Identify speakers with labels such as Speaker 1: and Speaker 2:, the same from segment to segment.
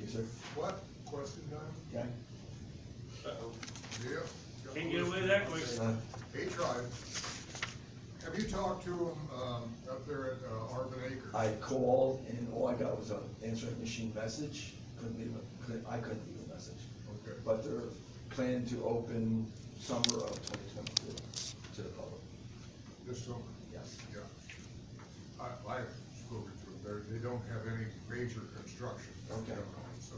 Speaker 1: Yes, sir.
Speaker 2: What? Question time?
Speaker 1: Okay.
Speaker 2: Yep.
Speaker 3: Can't get away that quick.
Speaker 1: Uh,
Speaker 2: He tried. Have you talked to him, um, up there at, uh, Arbor Acres?
Speaker 1: I called and all I got was an answering machine message, couldn't leave a, couldn't, I couldn't leave a message.
Speaker 2: Okay.
Speaker 1: But they're planning to open summer of twenty twenty-four to the public,
Speaker 2: This summer?
Speaker 1: yes.
Speaker 2: Yeah. I, I've spoken to them, they, they don't have any major construction.
Speaker 1: Okay.
Speaker 2: going on, So.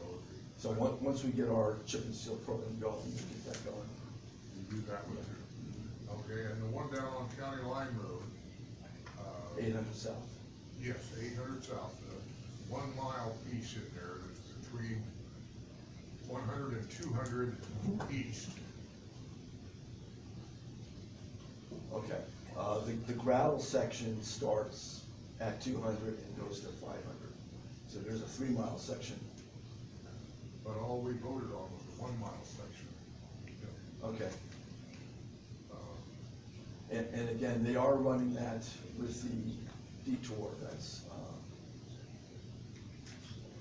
Speaker 1: So on, once we get our chip and seal program going, we can get that going.
Speaker 2: You do that one too. Okay, and the one down on County Line Road, uh.
Speaker 1: Eight hundred south.
Speaker 2: Yes, eight hundred south, the one mile piece in there that's between 100 and 200 east.
Speaker 1: Okay, uh, the, the gravel section starts at two hundred and goes to five hundred. So there's a three mile section.
Speaker 2: But all we voted on was the one mile section.
Speaker 1: Okay,
Speaker 2: Uh,
Speaker 1: and, and again, they are running that with the detour that's, um,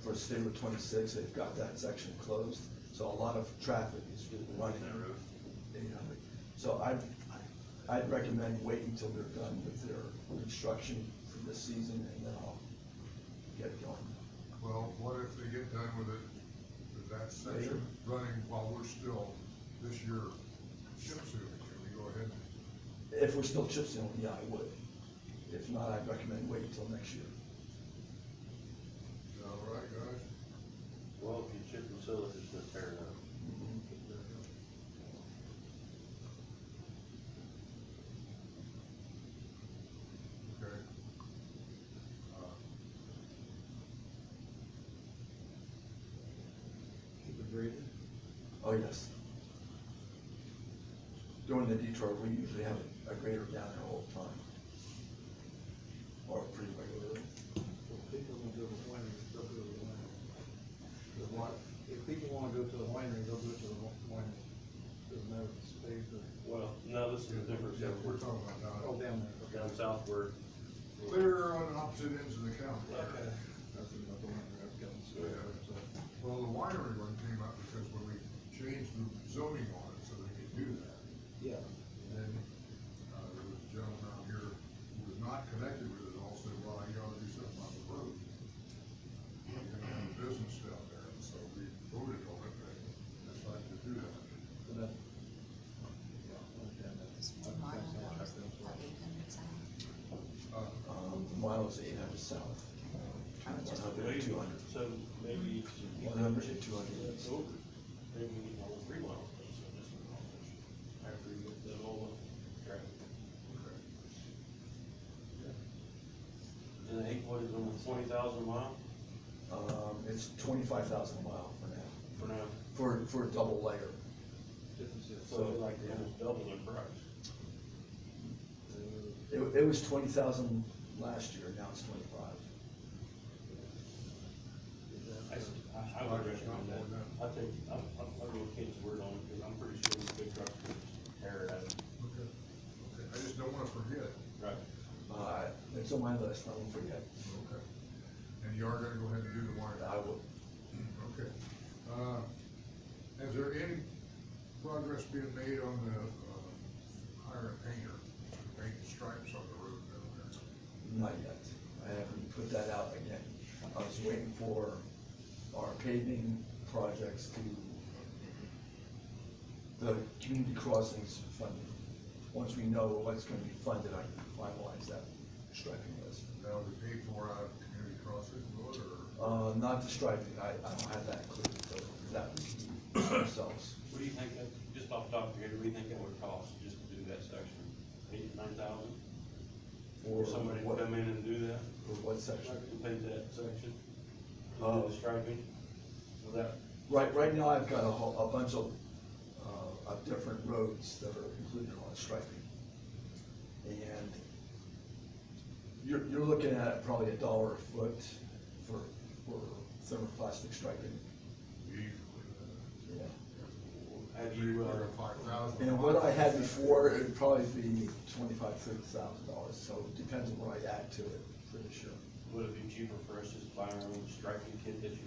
Speaker 1: for State Route twenty-six, they've got that section closed, so a lot of traffic is running.
Speaker 3: That road.
Speaker 1: You know, So I, I'd recommend waiting till they're done with their construction for this season and then I'll get going.
Speaker 2: Well, what if they get done with it, with that section running while we're still this year chip sealing? Can we go ahead?
Speaker 1: If we're still chip sealing, yeah, I would. If not, I'd recommend waiting till next year.
Speaker 2: and- All right, guys?
Speaker 4: Well, if you chip and seal it, it's gonna tear it up.
Speaker 2: Okay. Uh,
Speaker 5: Keep it breathing.
Speaker 1: Oh, yes. During the detour, we usually have a grader down there all the time. Or pretty regularly.
Speaker 5: Well, people gonna go to the winery, they'll go to the winery. The wi- if people wanna go to the winery, they'll go to the wi- winery. There's no space or,
Speaker 4: Well, no, this is a different,
Speaker 2: Yeah, we're
Speaker 4: we're
Speaker 2: talking about now.
Speaker 5: oh, down there.
Speaker 4: down southward.
Speaker 2: Clear on opposite ends of the county.
Speaker 5: That's about the winery, I've gotten so, so.
Speaker 2: Well, the winery one came up because when we changed the zoning on it, so they could do that,
Speaker 5: Yeah.
Speaker 2: then, uh, there was a gentleman out here who was not connected with it all, said, well, you ought to do something on the road. You're gonna have a business down there, and so we voted on it, and decided to do that.
Speaker 5: But that. yeah, I understand that.
Speaker 6: It's
Speaker 5: I've
Speaker 6: two miles,
Speaker 5: got some out
Speaker 6: that was
Speaker 5: there, so.
Speaker 6: about eight hundred south.
Speaker 2: Uh,
Speaker 1: Um, the mile is eight hundred south. One hundred and two hundred.
Speaker 4: So maybe it's.
Speaker 1: One hundred and two hundred.
Speaker 4: It's over. Maybe we need all three miles, so this one, all this. After you get that all up. Right.
Speaker 2: okay.
Speaker 4: And then eight, what is it, twenty thousand mile
Speaker 1: Um, it's twenty-five thousand a mile for now,
Speaker 4: for now?
Speaker 1: for, for a double layer.
Speaker 5: Difference is,
Speaker 4: So it's like almost double the price.
Speaker 5: uh,
Speaker 1: It, it was twenty thousand last year, now it's twenty-five.
Speaker 5: is
Speaker 4: I,
Speaker 5: that-
Speaker 4: I- I would recommend that. I think, I'm, I'm, I'm gonna Ken's word on it, because I'm pretty sure the big trucks could tear it out.
Speaker 2: Okay. Okay, I just don't wanna forget,
Speaker 4: Right.
Speaker 1: Uh, it's on my list, I won't forget.
Speaker 2: okay. And you are gonna go ahead and do the winery.
Speaker 1: I will,
Speaker 2: Okay. Uh, Has there any progress being made on the uh, hiring painter, to paint the stripes on the roof down there?
Speaker 1: not yet. I haven't put that out again. I was waiting for our paving projects to, the community crossings funding. Once we know what's gonna be funded, I can finalize that striping list.
Speaker 2: Now, we pay for out of community crossing road or
Speaker 1: Uh, not the striping, I, I don't have that included, so that we can do ourselves.
Speaker 4: What do you think, that just off the top of your head, what do you think that would cost, just to do that section? Eight, nine thousand? For somebody to
Speaker 1: what-
Speaker 4: come in and do that,
Speaker 1: For what section?
Speaker 4: to paint that section? To
Speaker 1: Oh.
Speaker 4: do the striping? Without,
Speaker 1: Right, right now I've got a whole, a bunch of, uh, of different roads that are included on striping. And you're, you're looking at probably a dollar a foot for, for thermoplastic striping,
Speaker 2: usually?
Speaker 1: yeah.
Speaker 4: have
Speaker 2: Three,
Speaker 4: you,
Speaker 2: four,
Speaker 4: uh,
Speaker 2: five thousand.
Speaker 1: And what I had before, it'd probably be twenty-five, thirty thousand dollars, so it depends on what I add to it for this year.
Speaker 4: would it be cheaper for us just to buy our own striping kit that you